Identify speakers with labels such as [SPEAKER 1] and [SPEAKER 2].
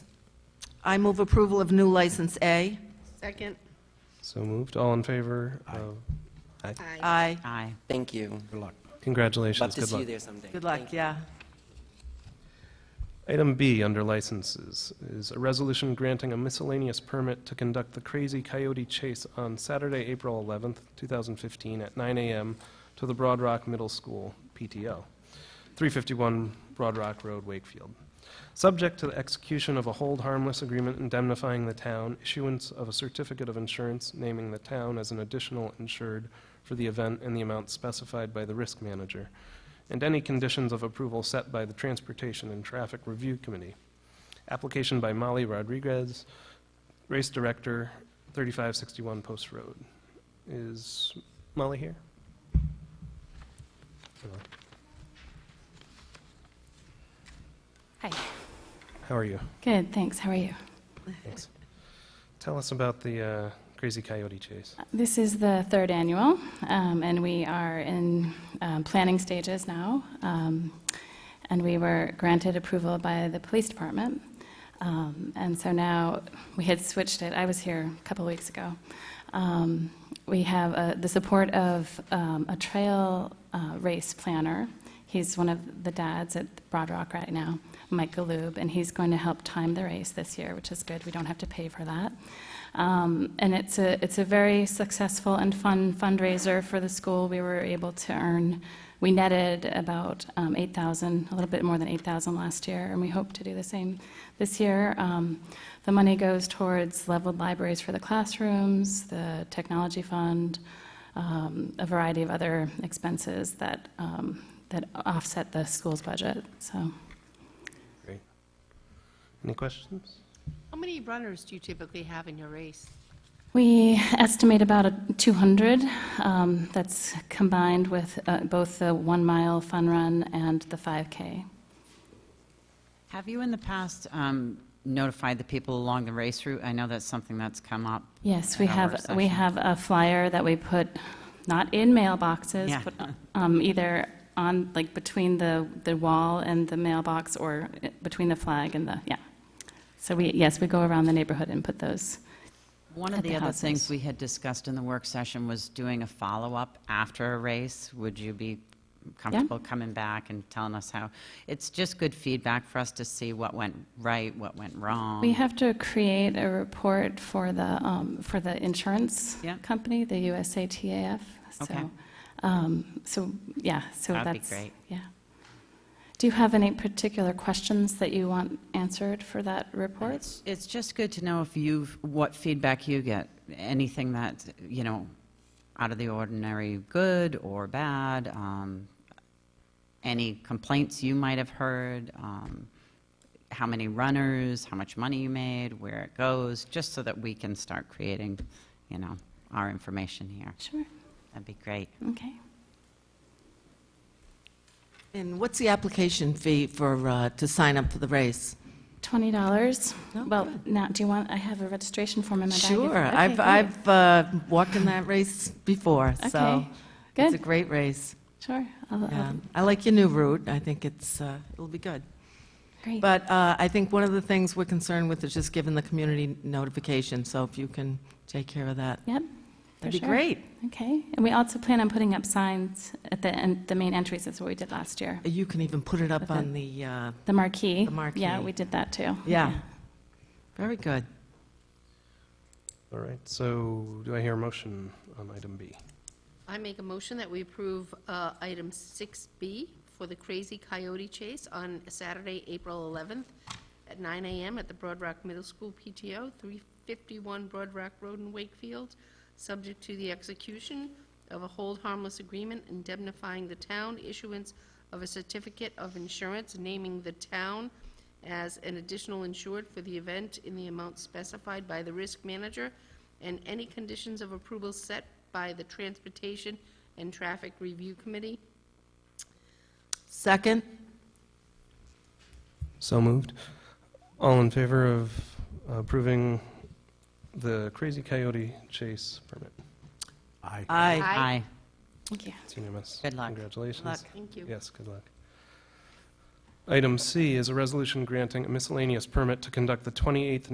[SPEAKER 1] I move approval of new license A.
[SPEAKER 2] Second.
[SPEAKER 3] So moved. All in favor? of-
[SPEAKER 2] Aye.
[SPEAKER 1] Aye.
[SPEAKER 4] Aye.
[SPEAKER 5] Thank you. Love
[SPEAKER 3] Congratulations.
[SPEAKER 5] to
[SPEAKER 3] Good
[SPEAKER 5] see you
[SPEAKER 3] luck.
[SPEAKER 5] there someday.
[SPEAKER 1] Good luck,
[SPEAKER 5] Thank you.
[SPEAKER 1] yeah.
[SPEAKER 3] Item B, under licenses, is a resolution granting a miscellaneous permit to conduct the Crazy Coyote Chase on Saturday, April 11th, 2015, at 9 a.m. to the Broad Rock Middle School PTO, 351 Broad Rock Road, Wakefield. Subject to the execution of a hold harmless agreement indemnifying the town, issuance of a certificate of insurance naming the town as an additional insured for the event in the amount specified by the risk manager, and any conditions of approval set by the Transportation and Traffic Review Committee. Application by Molly Rodriguez, Race Director, 3561 Post Road. Is Molly here? Hello.
[SPEAKER 6] Hi.
[SPEAKER 3] How are you?
[SPEAKER 6] Good, thanks. How are you?
[SPEAKER 3] Thanks. Tell us about the uh, Crazy Coyote Chase.
[SPEAKER 6] This is the third annual, um, and we are in um, planning stages now. Um, and we were granted approval by the police department. Um, and so now we had switched it. I was here a couple weeks ago. Um, we have uh, the support of um, a trail uh, race planner. He's one of the dads at Broad Rock right now, Mike Galoob, and he's going to help time the race this year, which is good. We don't have to pay for that. Um, and it's a, it's a very successful and fun fundraiser for the school. We were able to earn, we netted about um, 8,000, a little bit more than 8,000 last year, and we hope to do the same this year. Um, the money goes towards leveled libraries for the classrooms, the technology fund, um, a variety of other expenses that, um, that offset the school's budget. So
[SPEAKER 3] Great. Any questions?
[SPEAKER 2] How many runners do you typically have in your race?
[SPEAKER 6] We estimate about a 200. um, That's combined with uh, both the one-mile fun run and the 5K.
[SPEAKER 4] Have you in the past um, notified the people along the race route? I know that's something that's come up.
[SPEAKER 6] Yes, we
[SPEAKER 4] at our
[SPEAKER 6] have,
[SPEAKER 4] work
[SPEAKER 6] we
[SPEAKER 4] session.
[SPEAKER 6] have a flyer that we put, not in mailboxes,
[SPEAKER 4] Yeah.
[SPEAKER 6] but um, either on, like, between the, the wall and the mailbox, or uh, between the flag and the, yeah. So we, yes, we go around the neighborhood and put those.
[SPEAKER 4] One of
[SPEAKER 6] at
[SPEAKER 4] the
[SPEAKER 6] the
[SPEAKER 4] other things
[SPEAKER 6] houses.
[SPEAKER 4] we had discussed in the work session was doing a follow-up after a race. Would you be comfortable coming back and telling us how? It's just good feedback for us to see what went right, what went wrong.
[SPEAKER 6] We have to create a report for the, um, for the insurance
[SPEAKER 4] Yeah.
[SPEAKER 6] company, the USATAF.
[SPEAKER 4] Okay.
[SPEAKER 6] So, um, so, yeah, so that's.
[SPEAKER 4] That'd be great.
[SPEAKER 6] Yeah. Do you have any particular questions that you want answered for that report?
[SPEAKER 4] It's, it's just good to know if you've, what feedback you get, anything that, you know, out of the ordinary, good or bad, um, any complaints you might have heard, um, how many runners, how much money you made, where it goes, just so that we can start creating, you know, our information here.
[SPEAKER 6] Sure,
[SPEAKER 4] That'd be great.
[SPEAKER 6] okay.
[SPEAKER 1] And what's the application fee for, uh, to sign up for the race?
[SPEAKER 6] $20?
[SPEAKER 1] No,
[SPEAKER 6] Well,
[SPEAKER 1] Oh, good. now-
[SPEAKER 6] now, do you want, I have a registration form in my bag.
[SPEAKER 1] Sure, I've, I've uh, walked in that race before, so.
[SPEAKER 6] Okay,
[SPEAKER 1] It's a
[SPEAKER 6] good,
[SPEAKER 1] great race.
[SPEAKER 6] sure. I'll- I'll-
[SPEAKER 1] Yeah. I like your new route. I think it's, uh, it'll be good.
[SPEAKER 6] Great,
[SPEAKER 1] But uh, I think one of the things we're concerned with is just giving the community notification, so if you can take care of that,
[SPEAKER 6] yep. for
[SPEAKER 1] that'd be
[SPEAKER 6] sure.
[SPEAKER 1] great.
[SPEAKER 6] Okay, and we also plan on putting up signs at the, en- the main entries, that's what we did last year.
[SPEAKER 1] You can even put it up
[SPEAKER 6] With
[SPEAKER 1] on the, uh,
[SPEAKER 6] The marquee.
[SPEAKER 1] The marquee.
[SPEAKER 6] Yeah, we did that too.
[SPEAKER 1] yeah. Very good.
[SPEAKER 3] All right, so do I hear a motion on item B?
[SPEAKER 2] I make a motion that we approve uh, item 6B for the Crazy Coyote Chase on Saturday, April 11th at 9 a.m. at the Broad Rock Middle School PTO, 351 Broad Rock Road in Wakefield, subject to the execution of a hold harmless agreement indemnifying the town, issuance of a certificate of insurance naming the town as an additional insured for the event in the amount specified by the risk manager, and any conditions of approval set by the Transportation and Traffic Review Committee.
[SPEAKER 1] Second?
[SPEAKER 3] So moved. All in favor of approving the Crazy Coyote Chase permit?
[SPEAKER 7] Aye.
[SPEAKER 1] Aye.
[SPEAKER 4] Aye.
[SPEAKER 6] Thank you.
[SPEAKER 3] It's unanimous.
[SPEAKER 4] Good luck.
[SPEAKER 3] Congratulations.
[SPEAKER 1] Luck.
[SPEAKER 2] Thank you.
[SPEAKER 3] Yes, good luck. Item C is a resolution granting a miscellaneous permit to conduct the 28th